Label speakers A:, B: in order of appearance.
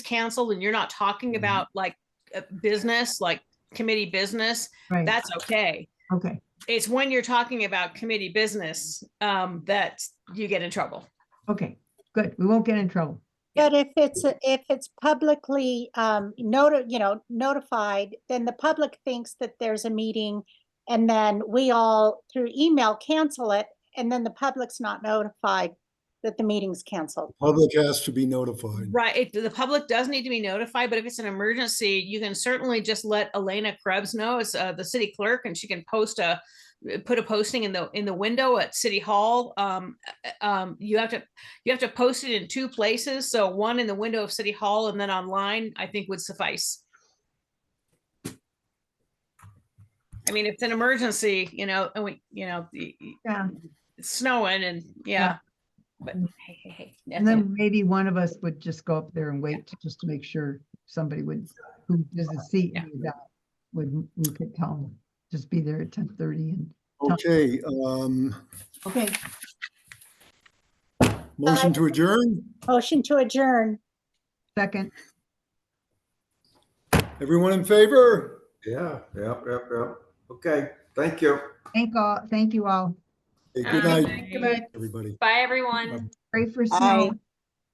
A: canceled and you're not talking
B: Mhm.
A: about like uh, business, like committee business,
C: Right,
A: that's okay.
C: okay,
A: It's when you're talking about committee business um, that you get in trouble.
C: okay, good. We won't get in trouble.
D: But if it's, a- if it's publicly, um, noti- you know, notified, then the public thinks that there's a meeting. And then we all through email cancel it, and then the public's not notified that the meeting's canceled.
B: Public has to be notified.
A: Right. It, the public does need to be notified, but if it's an emergency, you can certainly just let Elena Krebs know as uh, the city clerk and she can post a put a posting in the in the window at city hall. Um, uh, um, you have to you have to post it in two places. So one in the window of city hall and then online, I think would suffice. I mean, if it's an emergency, you know, and we, you know, y- y-
C: Yeah,
A: it's snowing and yeah. But hey, hey, hey.
C: and then maybe one of us would just go up there and wait to, just to make sure somebody would, who does a seat
A: Yeah.
C: that would, we could tell them, just be there at ten thirty and,
B: Okay, um,
C: okay,
B: motion to adjourn.
D: Motion to adjourn.
C: second.
B: Everyone in favor?
E: Yeah, yep, yep, yep. Okay, thank you.
C: Thank all, thank you all.
B: Hey, Good
F: Aye.
B: night,
F: Good night.
B: everybody.
F: Bye, everyone.
C: Pray for
D: Aye.
C: snow.